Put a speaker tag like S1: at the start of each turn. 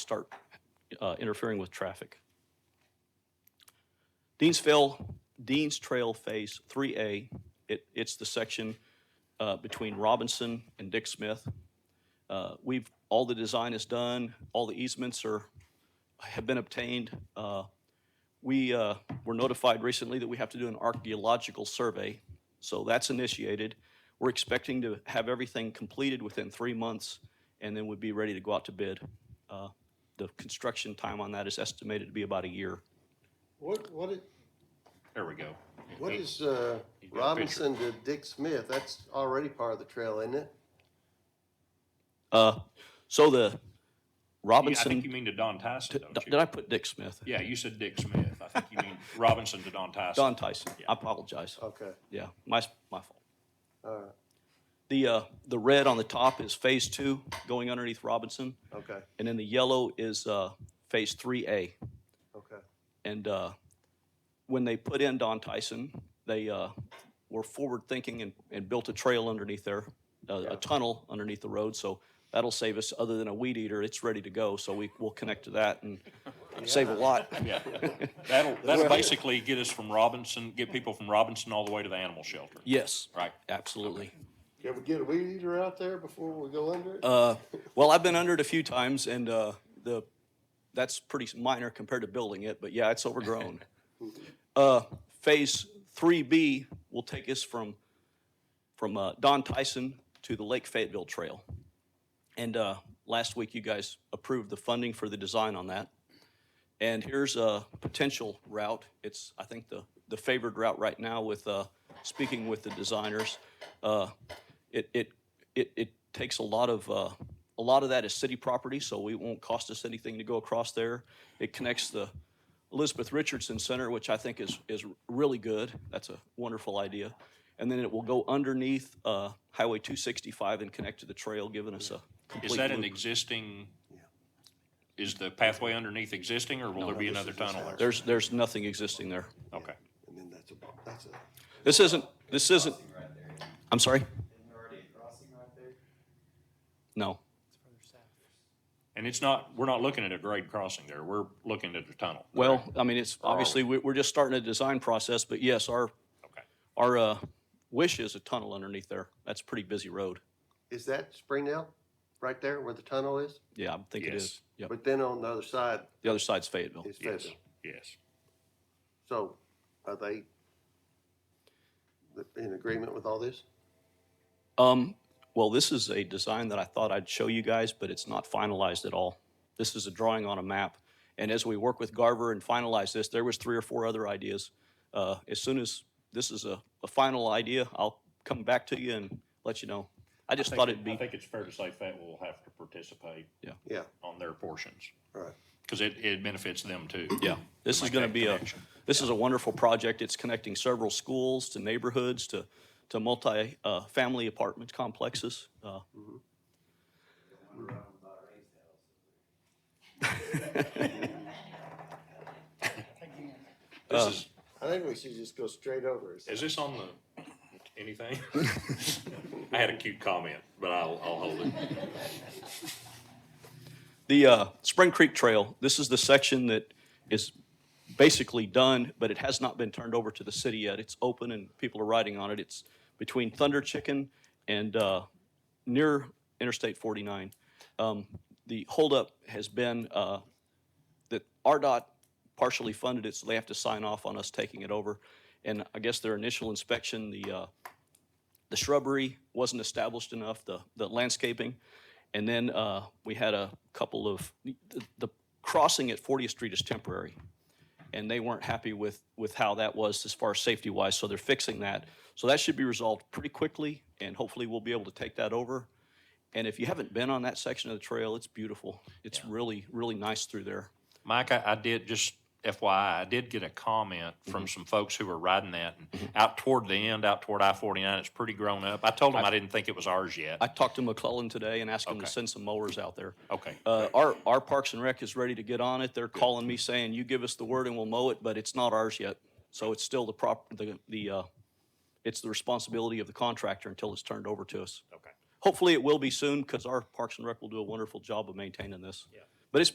S1: start uh, interfering with traffic. Deansville, Deans Trail Phase 3A, it, it's the section uh, between Robinson and Dick Smith. Uh, We've, all the design is done, all the easements are, have been obtained. Uh, We uh, were notified recently that we have to do an archaeological survey, so that's initiated. We're expecting to have everything completed within three months, and then we'd be ready to go out to bid. Uh, The construction time on that is estimated to be about a year.
S2: What, what, it-
S3: There we go.
S2: what is, uh,
S3: got a
S2: Robinson to Dick Smith? That's already part of the trail, isn't it?
S1: Uh, So the
S3: Yeah, I think you
S1: Robinson,
S3: mean to Don Tyson, don't
S1: did
S3: you?
S1: I put Dick Smith?
S3: Yeah, you said Dick Smith. I think you mean Robinson to Don Tyson.
S1: Don Tyson, I apologize.
S3: Oh.
S2: Okay,
S1: Yeah, my, my fault.
S2: all right,
S1: The, uh, the red on the top is Phase Two going underneath Robinson,
S2: okay,
S1: and then the yellow is uh, Phase Three A.
S2: okay.
S1: And uh, when they put in Don Tyson, they uh, were forward thinking and, and built a trail underneath there, a, a tunnel underneath the road. So that'll save us, other than a weed eater, it's ready to go. So we will connect to that and save a lot.
S3: Yeah. That'll, that'll basically get us from Robinson, get people from Robinson all the way to the animal shelter,
S1: Yes,
S3: right?
S1: absolutely.
S2: Can we get a weed eater out there before we go under it?
S1: Uh, well, I've been under it a few times and uh, the that's pretty minor compared to building it, but yeah, it's overgrown. uh, phase 3B will take us from from uh, Don Tyson to the Lake Fayetteville Trail. And uh, last week, you guys approved the funding for the design on that. And here's a potential route. It's, I think, the, the favored route right now with uh, speaking with the designers. Uh, it, it, it, it takes a lot of, uh, a lot of that is city property, so it won't cost us anything to go across there. It connects the Elizabeth Richardson Center, which I think is, is really good. That's a wonderful idea. And then it will go underneath uh, Highway 265 and connect to the trail, giving us a complete
S3: Is that an
S1: loop.
S3: existing, is the pathway underneath existing or will there be
S2: this
S3: another
S2: is just
S3: tunnel? there?
S1: There's, there's nothing existing there.
S3: Okay.
S2: And then that's a, that's a.
S1: This isn't, this isn't, I'm sorry? No.
S3: And it's not, we're not looking at a grade crossing there. We're looking at a tunnel.
S1: Well, I mean, it's, obviously, we- we're just starting a design process, but yes, our,
S3: Okay.
S1: our uh, wish is a tunnel underneath there. That's a pretty busy road.
S2: Is that Springdale, right there where the tunnel is?
S1: Yeah, I think it
S3: Yes.
S1: is. Yep. Oh,
S2: But then on the other side
S1: The other side's Fayetteville.
S2: is
S3: Yes,
S2: Fayetteville.
S3: yes.
S2: So are they th- in agreement with all this?
S1: Um, well, this is a design that I thought I'd show you guys, but it's not finalized at all. This is a drawing on a map. And as we work with Garver and finalize this, there was three or four other ideas. Uh, as soon as this is a, a final idea, I'll come back to you and let you know. I just thought it'd
S3: I
S1: be,
S3: think it's fair to say Fat will have to participate
S2: Yeah,
S3: on their portions
S2: right.
S3: because it, it benefits them too.
S1: yeah, this is
S3: make
S1: gonna
S3: that
S1: be a,
S3: connection.
S1: this is a wonderful project. It's connecting several schools to neighborhoods to, to multi, uh, family apartment complexes. Uh, uh,
S3: This is,
S2: I think we should just go straight over it.
S3: Is this on the, anything? I had a cute comment, but I'll, I'll hold it.
S1: The uh, Spring Creek Trail, this is the section that is basically done, but it has not been turned over to the city yet. It's open and people are riding on it. It's between Thunder Chicken and uh, near Interstate 49. Um, The holdup has been uh, that RDOT partially funded it, so they have to sign off on us taking it over. And I guess their initial inspection, the, uh, the shrubbery wasn't established enough, the, the landscaping. And then uh, we had a couple of, the, the crossing at 40th Street is temporary. And they weren't happy with, with how that was as far as safety wise, so they're fixing that. So that should be resolved pretty quickly, and hopefully we'll be able to take that over. And if you haven't been on that section of the trail, it's beautiful. It's really, really nice through there.
S3: Mike, I, I did, just FYI, I did get a comment
S1: Mm-hmm.
S3: from some folks who were riding that. and Out toward the end, out toward I-49, it's pretty grown up. I told them I didn't think it was ours yet.
S1: I talked to McClellan today and asked him to
S3: Okay.
S1: send some mowers out there.
S3: Okay.
S1: Uh, our, our Parks and Rec is ready to get on it. They're calling me saying, you give us the word and we'll mow it, but it's not ours yet. So it's still the prop, the, the, uh, it's the responsibility of the contractor until it's turned over to us.
S3: Okay.
S1: Hopefully it will be soon because our Parks and Rec will do a wonderful job of maintaining this.
S3: Yeah.